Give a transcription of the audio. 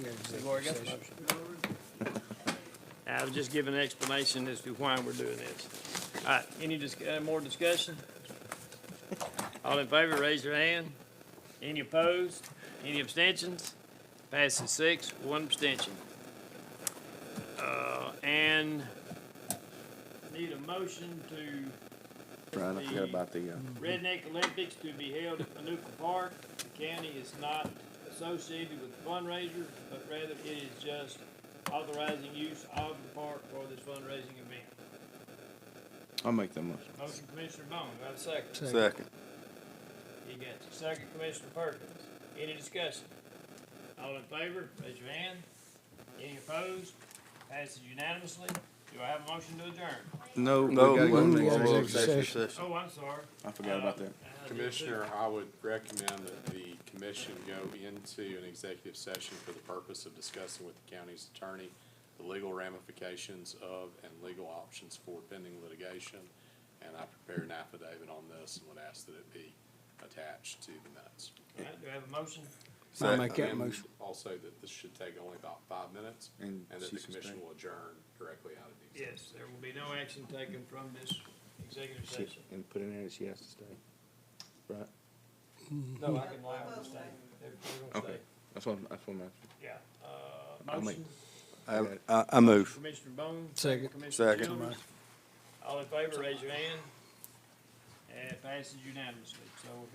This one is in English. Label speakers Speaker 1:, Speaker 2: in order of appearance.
Speaker 1: I was just giving an explanation as to why we're doing this. All right, any dis- uh, more discussion? All in favor, raise your hand. Any opposed? Any abstentions? Passes six, one abstention. Uh, and need a motion to
Speaker 2: Brian, I forgot about the, uh,
Speaker 1: Redneck Olympics to be held at Manuka Park. The county is not associated with fundraisers, but rather it is just authorizing use of the park for this fundraising event.
Speaker 2: I'll make that motion.
Speaker 1: Motion Commissioner Bone, do I have a second?
Speaker 2: Second.
Speaker 1: You got it. Second Commissioner Perkins. Any discussion? All in favor, raise your hand. Any opposed? Passes unanimously. Do I have a motion to adjourn?
Speaker 2: No, we
Speaker 3: No,
Speaker 2: gotta go
Speaker 3: we-
Speaker 2: to
Speaker 3: we-
Speaker 2: executive session.
Speaker 3: session.
Speaker 1: Oh, I'm sorry.
Speaker 2: I forgot about that.
Speaker 1: Uh,
Speaker 4: Commissioner, I would recommend that the commission go into an executive session for the purpose of discussing with the county's attorney the legal ramifications of and legal options for pending litigation. And I prepared an affidavit on this and would ask that it be attached to the minutes.
Speaker 1: All right, Do I have a motion?
Speaker 3: I'll make that
Speaker 4: And
Speaker 3: motion.
Speaker 4: Also that this should take only about five minutes and
Speaker 2: And
Speaker 4: that
Speaker 2: she
Speaker 4: the commission
Speaker 2: suspend-
Speaker 4: will adjourn directly out of the executive.
Speaker 1: Yes, there will be no action taken from this executive
Speaker 2: She-
Speaker 1: session.
Speaker 2: And put in there that she has to stay. Right?
Speaker 1: No, I can allow them to stay. They're, they're gonna
Speaker 2: Okay.
Speaker 1: stay.
Speaker 2: That's what, that's what I'm asking.
Speaker 1: Yeah. Uh,
Speaker 2: I'll make-
Speaker 1: motion,
Speaker 3: I, I- I move.
Speaker 1: Commissioner Bone.
Speaker 3: Second.
Speaker 1: Commissioner
Speaker 3: Second.
Speaker 1: Childers. All in favor, raise your hand. And it passes unanimously. So